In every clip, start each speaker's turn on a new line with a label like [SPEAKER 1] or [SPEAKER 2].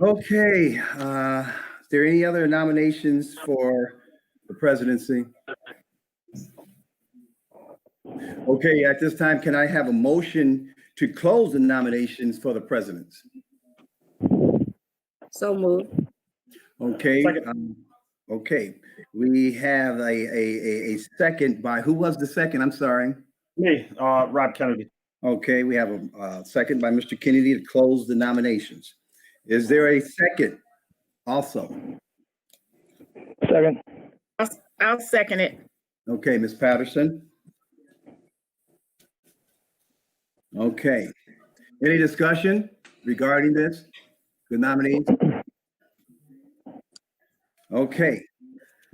[SPEAKER 1] Okay, uh, is there any other nominations for the presidency? Okay, at this time, can I have a motion to close the nominations for the presidents?
[SPEAKER 2] So moved.
[SPEAKER 1] Okay,
[SPEAKER 3] Second.
[SPEAKER 1] um, okay, we have a, a, a, a second by, who was the second? I'm sorry.
[SPEAKER 3] Me, uh, Rob Kennedy.
[SPEAKER 1] Okay, we have a, uh second by Mr. Kennedy to close the nominations. Is there a second also?
[SPEAKER 3] Second.
[SPEAKER 4] I'll- I'll second it.
[SPEAKER 1] Okay, Ms. Patterson? Okay. Any discussion regarding this? The nominees? Okay,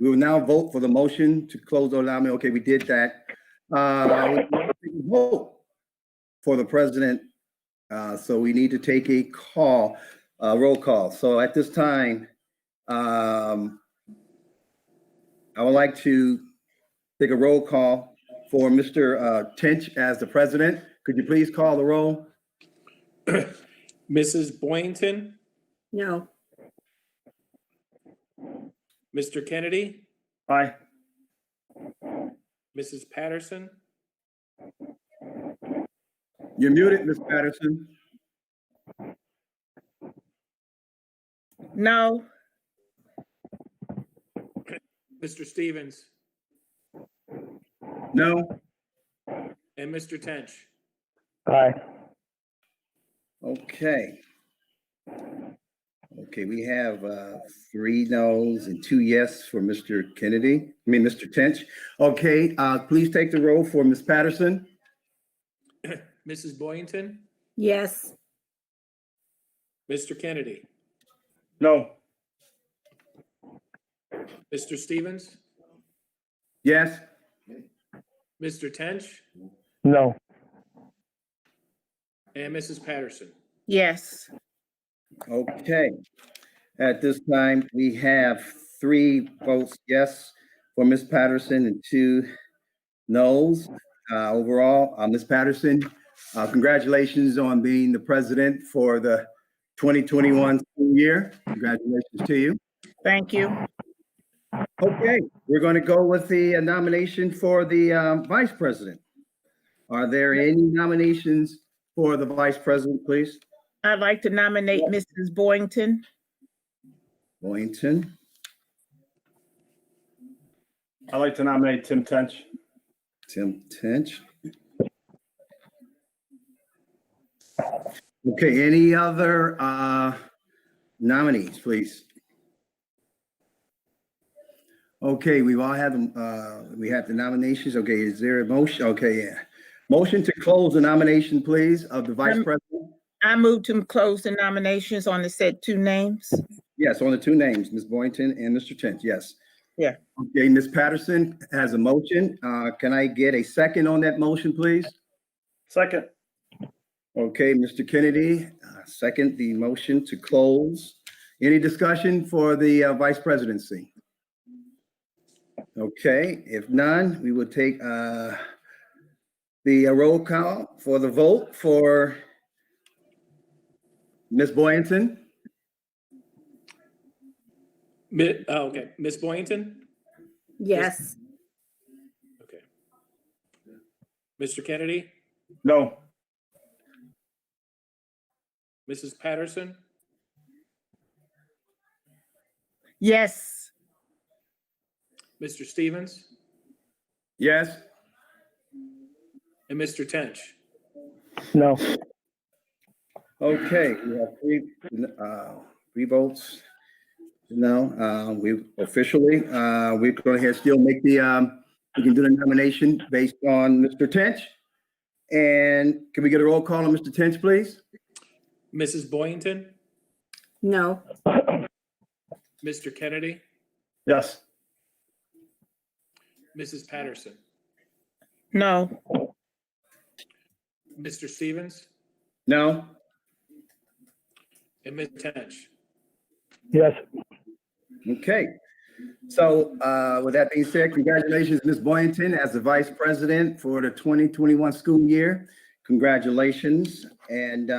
[SPEAKER 1] we will now vote for the motion to close the nominee. Okay, we did that. Uh, we now take a Vote for the president. Uh, so we need to take a call, uh, roll call. So at this time, um, I would like to take a roll call for Mr. uh, Tench as the president. Could you please call the roll?
[SPEAKER 5] Mrs. Boynton,
[SPEAKER 2] No.
[SPEAKER 5] Mr. Kennedy,
[SPEAKER 3] Aye.
[SPEAKER 5] Mrs. Patterson,
[SPEAKER 1] You're muted, Ms. Patterson.
[SPEAKER 4] No,
[SPEAKER 5] Mr. Stevens,
[SPEAKER 1] No?
[SPEAKER 5] and Mr. Tench.
[SPEAKER 3] Aye.
[SPEAKER 1] Okay. Okay, we have uh, three no's and two yes for Mr. Kennedy, I mean, Mr. Tench. Okay, uh, please take the roll for Ms. Patterson.
[SPEAKER 5] Mrs. Boynton,
[SPEAKER 2] Yes.
[SPEAKER 5] Mr. Kennedy,
[SPEAKER 3] No.
[SPEAKER 5] Mr. Stevens,
[SPEAKER 1] Yes?
[SPEAKER 5] Mr. Tench,
[SPEAKER 3] No.
[SPEAKER 5] and Mrs. Patterson.
[SPEAKER 4] yes,
[SPEAKER 1] Okay. At this time, we have three votes yes for Ms. Patterson and two noes. Uh, Overall, uh, Ms. Patterson, uh, congratulations on being the president for the 2021 school year. Congratulations to you.
[SPEAKER 4] thank you.
[SPEAKER 1] Okay, we're going to go with the uh, nomination for the um, vice president. Are there any nominations for the vice president, please?
[SPEAKER 4] I'd like to nominate Mrs. Boynton.
[SPEAKER 1] Boynton,
[SPEAKER 3] I'd like to nominate Tim Tench.
[SPEAKER 1] Tim Tench. Okay, any other uh, nominees, please? Okay, we've all had, them, uh, we have the nominations. Okay, is there a motion? Okay, yeah. Motion to close the nomination, please, of the vice
[SPEAKER 4] Um,
[SPEAKER 1] president?
[SPEAKER 4] I move to close the nominations on the said two names.
[SPEAKER 1] Yes, on the two names, Ms. Boynton and Mr. Tench, yes.
[SPEAKER 4] Yeah.
[SPEAKER 1] Okay, Ms. Patterson has a motion. Uh, Can I get a second on that motion, please?
[SPEAKER 3] Second.
[SPEAKER 1] Okay, Mr. Kennedy, uh, second the motion to close. Any discussion for the uh, vice presidency? Okay, if none, we will take uh, the uh, roll call for the vote for Ms. Boynton,
[SPEAKER 5] Mi- oh, okay, Ms. Boynton,
[SPEAKER 2] Yes.
[SPEAKER 5] okay. Mr. Kennedy,
[SPEAKER 3] No.
[SPEAKER 5] Mrs. Patterson,
[SPEAKER 4] Yes,
[SPEAKER 5] Mr. Stevens,
[SPEAKER 1] yes?
[SPEAKER 5] and Mr. Tench.
[SPEAKER 3] No.
[SPEAKER 1] Okay, we have three, uh, three votes. No, uh, we officially, uh, we're going to still make the, um, we can do the nomination based on Mr. Tench. And can we get a roll call on Mr. Tench, please?
[SPEAKER 5] Mrs. Boynton,
[SPEAKER 2] No.
[SPEAKER 5] Mr. Kennedy,
[SPEAKER 3] Yes.
[SPEAKER 5] Mrs. Patterson,
[SPEAKER 4] no,
[SPEAKER 5] Mr. Stevens,
[SPEAKER 1] No?
[SPEAKER 5] and Ms. Tench.
[SPEAKER 3] Yes.
[SPEAKER 1] Okay. So, uh, with that being said, congratulations, Ms. Boynton, as the Vice President for the 2021 school year. Congratulations. And,